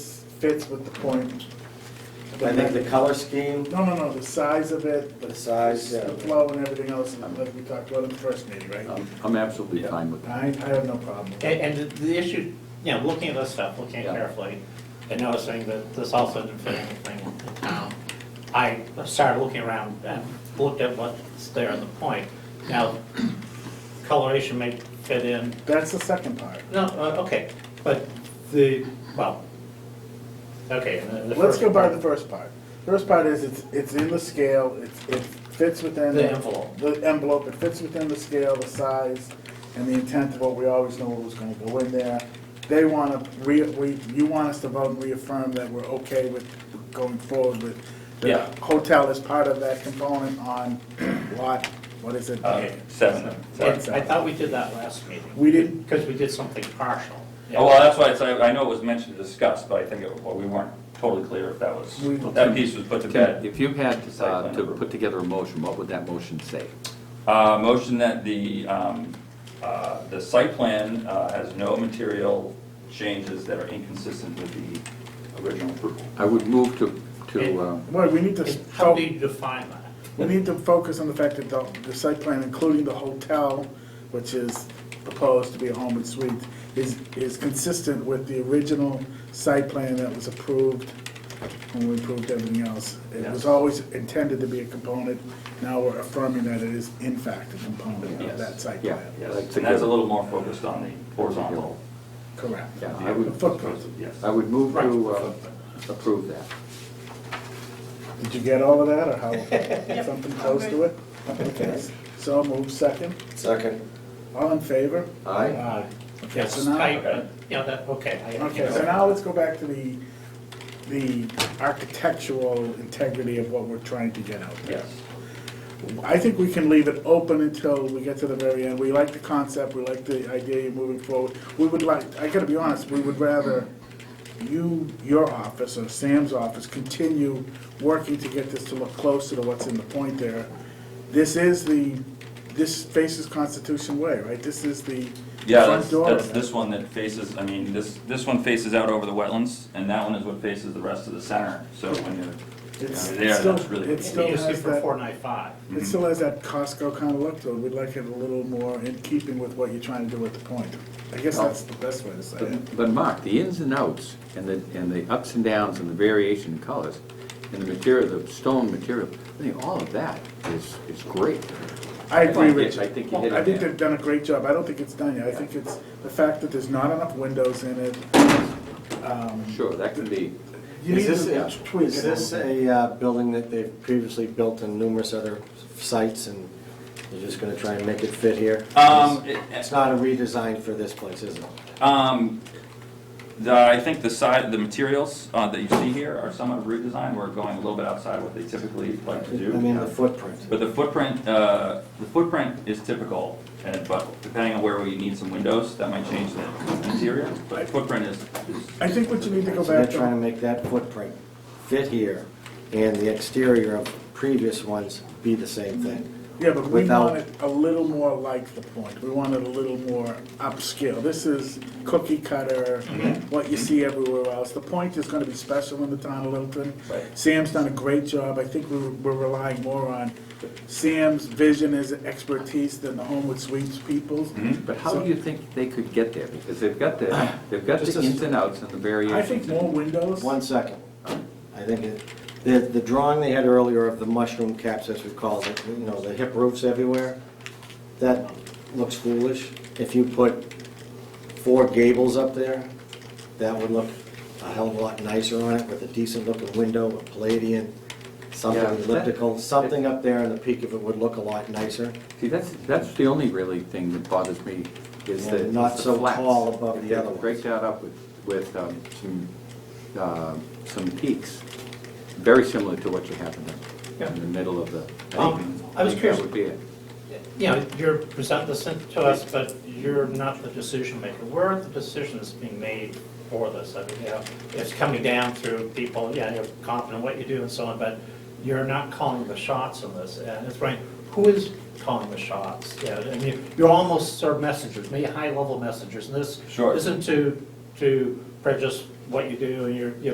fits with the point. I think the color scheme, No, no, no, the size of it, the the size, yeah. Uh-huh. the flow and everything else, and like we talked about in the first meeting, right? I'm- I'm absolutely fine with that. I, I have no problem. with And, it. and the- the issue, you know, looking at this stuff, looking at Yeah. carefully, and noticing that this also didn't fit anything in town, I started looking around and looked at what's there in the point. Now, coloration may fit in, That's the second part. no, uh, okay, but the, well, okay. and the- the Let's first go by part- the first part. First part is it's, it's in the scale, it's, it fits within. The envelope. The envelope, it fits within the scale, the size, and the intent of what we always know what was gonna go in there. They wanna, re, we, you want us to vote and reaffirm that we're okay with going forward with. the Yeah. Hotel is part of that component on lot, what is it? Uh, Seven. I seven. I thought we did that last meeting. We didn't- Because we did something partial. Oh, Well, that's why it's, I I know it was mentioned and discussed, but I think it- well, we weren't totally clear if that was, We- that piece was put to Tim, bed. If you had Site uh, plan to approval. put together a motion, what would that motion say? Uh, Motion that the, um, uh, the site plan uh, has no material changes that are inconsistent with the original approval. I would move to, to, uh, Well, we need to. And How do you define that? We need to focus on the fact that the, the site plan, including the hotel, which is proposed to be a home and suite, is, is consistent with the original site plan that was approved when we approved everything else. It was Yes. always intended to be a component, now we're affirming that it is in fact a component of Yes. that site Yeah. plan. Yes, and that's a little more focused on the horizontal. Correct. yeah, The I would, footprint. Yes. I would move to uh, approve that. Did you get all of that, or how, something close to it? Okay. So move second, Second. all in favor? Aye. Uh, Aye. Okay, Yes, so now. I, uh, yeah, that, okay. I- Okay, so now let's go back to the, the architectural integrity of what we're trying to get out there. Yes. I think we can leave it open until we get to the very end. We like the concept, we like the idea of moving forward. We would like, I gotta be honest, we would rather you, your office, or Sam's office, continue working to get this to look closer to what's in the point there. This is the, this faces Constitution Way, right? This is the Yeah, front that's, door. that's this one that faces, I mean, this, this one faces out over the wetlands, and that one is what faces the rest of the center, so when you're, It's- Yeah, it's still- that's really- It It's still used has for that. four nine five. It still has that Costco kind of look to it, we'd like it a little more in keeping with what you're trying to do at the point. I guess that's the best way to say it. But but Mark, the ins and outs, and the, and the ups and downs, and the variation in colors, and the material, the stone material, I think all of that is, is great. Mm-hmm. I agree with you. I think you hit it. I think man. they've done a great job, I don't think it's done yet, I think it's the fact that there's not enough windows in it. Sure, that can be, You Is need this, to a- tweak it is a this little bit. a uh, building that they've previously built in numerous other sites and you're just gonna try and make it fit here? um, it- It's not a redesign for this place, is it? Um, the, I think the side, the materials, uh, that you see here are somewhat redesigned, we're going a little bit outside what they typically like to I mean, do. the footprint. But the footprint, uh, the footprint is typical, and, but depending on where we need some windows, that might change the interior, but footprint is, is I think what you need to go So they're back trying to to, make that footprint fit here and the exterior of previous ones be the same thing. yeah, but we without- want it a little more like the point, we want it a little more upscale. This is cookie cutter, what you see everywhere else. The point is gonna be special in the town of Littleton. Right. Sam's done a great job. I think we're, we're relying more on Sam's vision as expertise than the Homewood Suites people's. but how do you think they could get there? Because they've got the, they've got Just the a- ins and outs and the I variations. think more windows. One second. I think it- the, the drawing they had earlier of the mushroom caps, as we call it, you know, the hip roofs everywhere, that looks foolish. If you put four gables up there, that would look a hell of a lot nicer on it with a decent looking window, a palladian, something Yeah. elliptical, something up there in the peak of it would look a lot nicer. See, that's, that's the only really thing that bothers me, is Yeah, the, is not the so flats. tall above If the they other ones. Break that up with, with um, some, uh, some peaks, very similar to what you have in the, in the middle of the. Um, think- I was think curious. That would be it. You know, you're presenting this in- to us, but you're not the decision maker. Where are the decisions being made for this? I mean, you know, it's coming down through people, yeah, you're confident in what you do and so on, but you're not calling the shots on this. And it's right, who is calling the shots? Yeah, I mean, you're almost sort of messengers, maybe high-level messengers, and this Sure. isn't to, to prejudice what you do and your, your